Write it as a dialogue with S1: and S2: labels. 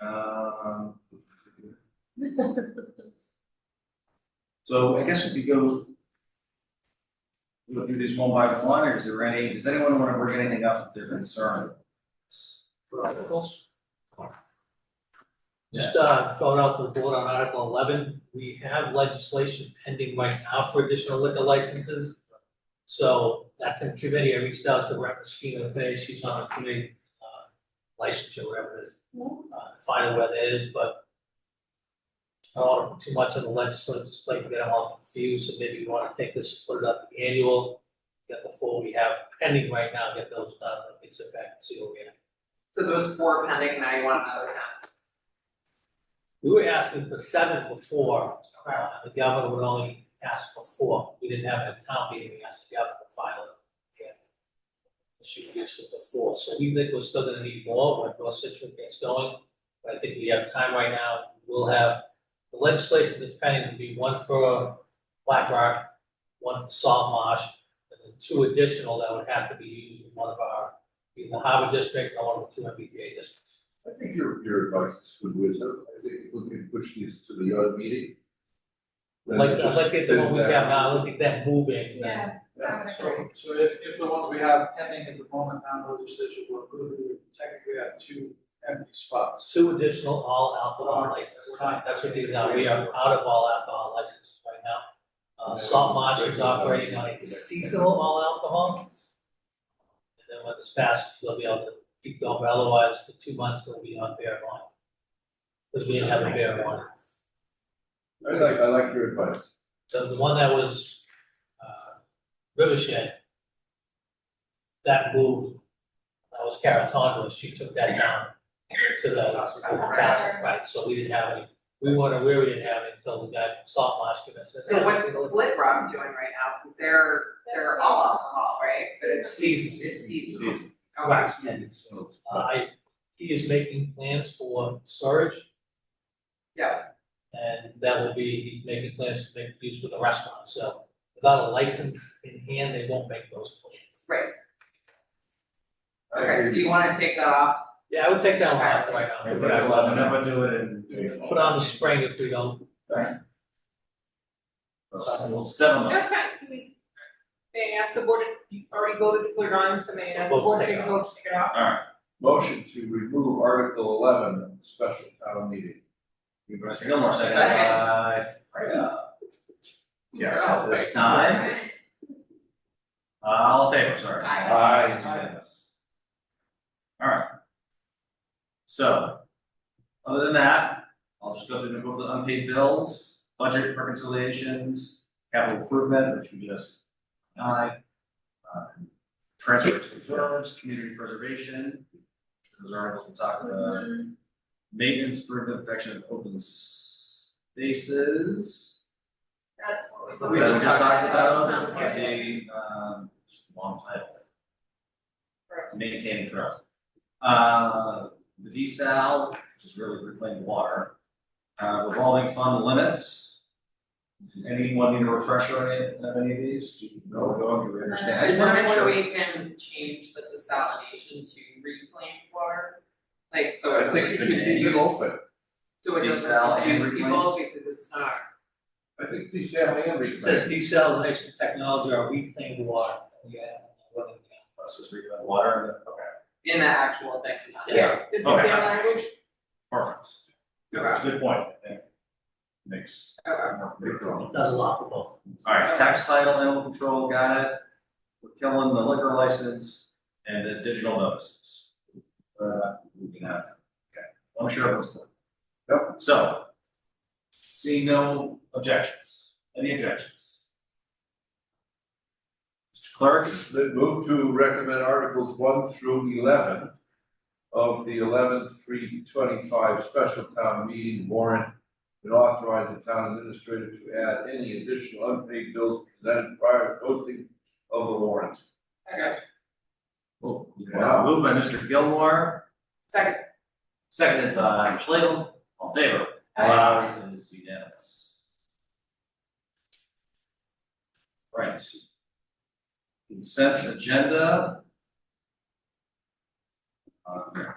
S1: Um. So I guess we could go. We'll do these one by one, or is there any, does anyone wanna bring anything up that they're concerned?
S2: for articles.
S1: Yeah.
S2: Just uh, throwing out to the board on Article eleven, we have legislation pending right now for additional liquor licenses. So that's in committee, I reached out to Rep. Mosquito today, she's on a committee, uh, licensure, whatever it is. Uh, find out where that is, but I don't want to put too much on the legislature's plate, get them all confused, so maybe you wanna take this, put it up annual. Get the four we have pending right now, get those done, and mix it back and see what we have.
S3: So those four pending, now you want another ten.
S2: We were asking for seven before, uh, the governor would only ask for four, we didn't have a town meeting, we asked the governor to file it. Yeah. She reduced it to four, so we think we're still gonna need more when North Situate gets going, but I think we have time right now, we'll have the legislation that's pending will be one for Black Rock, one for Salt Marsh, and then two additional that would have to be used in one of our, either Harbor District or one of the two MBTA districts.
S4: I think your, your advice is good wisdom, I think if we can push these to the other meeting. then
S2: Like,
S4: just-
S2: like at the ones we have now, look at that moving,
S5: Yeah,
S4: Yeah,
S6: So, so if, if the ones we have pending at the moment, non legislature will approve, we would technically have two empty spots.
S2: two additional all alcohol licenses, right? that's what these are, we are out of all alcohol licenses right now. Uh, Salt Marsh is operating on a seasonal all alcohol. And then when this passes, they'll be able to keep going, but otherwise for two months, they'll be on beer and wine. Because we didn't have a beer and wine,
S4: I like, I like your advice.
S2: the, the one that was, uh, Rivershed, That moved, that was Caratonda, she took that down to the castle, right, so we didn't have any, we weren't aware we didn't have it until the guy from Salt Marsh gave us.
S3: So what's Split Rock doing right now? 'Cause They're, they're all alcohol, right? So it's
S2: Seasons.
S3: It's seasonal.
S2: Right.
S1: Yeah, it's, uh,
S2: I, he is making plans for storage.
S3: Yeah.
S2: And that will be, he's making plans to make use with the restaurant, so without a license in hand, they won't make those plans.
S3: Right,
S4: I
S3: okay, do
S4: agree.
S3: you wanna take that off?
S2: Yeah, I would take that one out right now.
S1: But I will never do it in.
S2: Put on the spring if we don't,
S1: Well, Seven
S7: That's
S1: months.
S7: fine, can we, may I ask the board, you already voted to put it on, so may I ask the
S2: Vote to
S7: board
S2: take
S7: to
S2: it
S7: vote to take it off?
S1: Alright,
S4: Motion to remove Article eleven of the special town meeting.
S1: Mr. Gilmore second.
S3: Second.
S1: Uh, yeah. Yes, at this
S3: Oh,
S1: time,
S3: right.
S1: uh, all in favor, sorry.
S3: Aye.
S1: Aye, it's unanimous. Alright. So, other than that, I'll just go through the both the unpaid bills, budget reconciliations, capital improvement, which we just, aye. Um, Transfer to insurance, community preservation, those articles we talked about.
S5: Mm-hmm.
S1: Maintenance, improvement, protection of open spaces.
S5: That's what
S1: That
S5: we
S1: we just talked about,
S5: Yeah.
S1: update, um, long title.
S5: Right.
S1: Maintaining trust. Uh, the desal, which is really reclaimed water, uh, revolving fund limits. Anyone need a refresher on any, on any of these? No, go over, understand, I
S3: Uh, Is
S1: just
S3: there
S1: wanna
S3: a
S1: make sure.
S3: way we can change the desalination to reclaimed water? Like, so
S4: I
S3: it
S4: think
S3: doesn't
S4: we
S3: confuse
S4: should keep it
S3: people,
S4: open,
S3: so it
S1: Desal
S3: doesn't
S1: and
S3: confuse people because it's not.
S4: I think these have and
S2: it says desalination technology, or reclaimed water, yeah, whether we can.
S1: Let's just read that water, okay,
S3: In the actual thing, not.
S2: Yeah.
S7: This is
S1: Okay.
S7: their language,
S1: perfect. Yeah, That's a good point, I think. Makes. Makes a lot of
S2: It does a lot for both.
S1: Alright, tax title, animal control, got it. We're killing the liquor license and the digital notices. Uh, we can have, okay, I'm sure everyone's clear. Yep. So. See no objections, any objections? Mr. Clerk,
S4: That move to recommend Articles one through eleven of the eleven three twenty-five special town meeting warrant and authorize the town administrator to add any additional unpaid bills presented prior to posting of the warrant.
S1: uh, moved by Mr. Gilmore,
S3: Second
S1: seconded by Schlegel, all in favor? Aye. It is unanimous. Right. Consent agenda. Um,